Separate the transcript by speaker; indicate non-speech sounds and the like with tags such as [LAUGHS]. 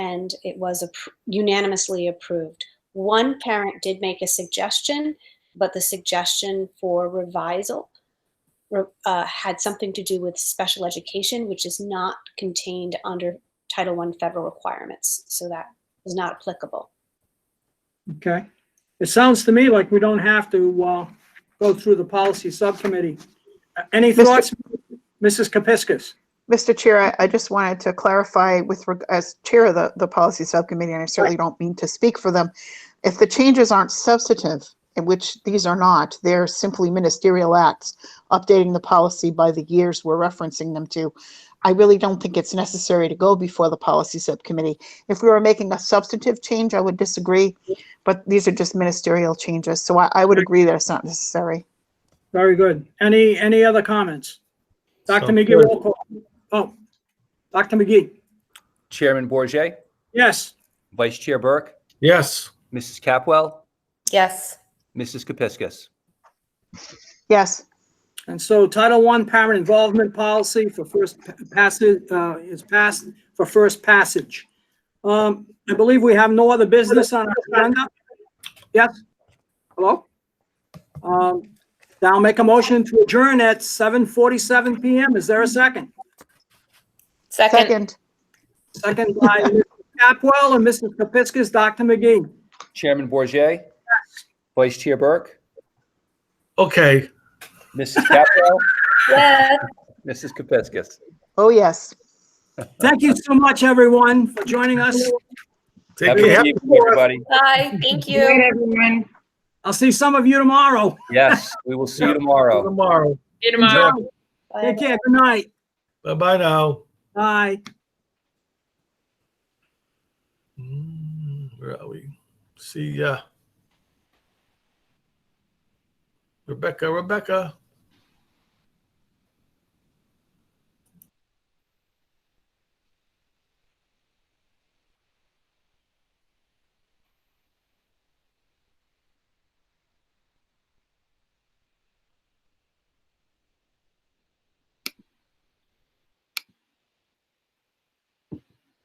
Speaker 1: and it was appro- unanimously approved. One parent did make a suggestion, but the suggestion for revisal re- uh, had something to do with special education, which is not contained under Title I federal requirements. So that is not applicable.
Speaker 2: Okay. It sounds to me like we don't have to uh, go through the policy subcommittee. Uh, Any
Speaker 3: Mr.
Speaker 2: thoughts, Mrs. Kepiscus?
Speaker 3: Mr. Chair, I- I just wanted to clarify with, reg- as Chair of the, the Policy Subcommittee, and I certainly don't mean to speak for them, if the changes aren't substantive, and which these are not, they're simply ministerial acts, updating the policy by the years we're referencing them to, I really don't think it's necessary to go before the Policy Subcommittee. If we were making a substantive change, I would disagree, but these are just ministerial changes, so I, I would agree that it's not necessary.
Speaker 2: Very good. Any, any other comments? Dr.
Speaker 4: So
Speaker 2: McGee,
Speaker 4: good.
Speaker 2: roll call. Oh, Dr. McGee,
Speaker 5: Chairman Bourget,
Speaker 2: yes.
Speaker 5: Vice Chair Burke,
Speaker 4: Yes.
Speaker 5: Mrs. Capwell,
Speaker 6: Yes,
Speaker 5: Mrs. Kepiscus.
Speaker 3: Yes,
Speaker 2: And so Title I Parent Involvement Policy for first pa- passage, uh, is passed for first passage. Um, I believe we have no other business on our agenda. Yes? Hello? Um, now I'll make a motion to adjourn at seven forty-seven PM. Is there a second?
Speaker 6: second,
Speaker 3: second,
Speaker 2: Second by Mr. Capwell and Mrs. Kepiscus, Dr. McGee.
Speaker 5: Chairman Bourget, Vice Chair Burke,
Speaker 4: Okay.
Speaker 5: Mrs. Capwell, [LAUGHS]
Speaker 6: yes.
Speaker 5: Mrs. Kepiscus.
Speaker 3: oh, yes.
Speaker 2: Thank you so much, everyone, for joining us.
Speaker 4: Take
Speaker 5: Have a
Speaker 4: care.
Speaker 5: good evening, everybody.
Speaker 6: Bye, thank you.
Speaker 2: I'll see some of you tomorrow.
Speaker 5: Yes, we will see you tomorrow.
Speaker 4: Tomorrow.
Speaker 7: See you tomorrow.
Speaker 6: Bye.
Speaker 2: Take care. Good night.
Speaker 4: Bye-bye now.
Speaker 2: Bye.
Speaker 4: Mm, Where are we? See ya. Rebecca, Rebecca.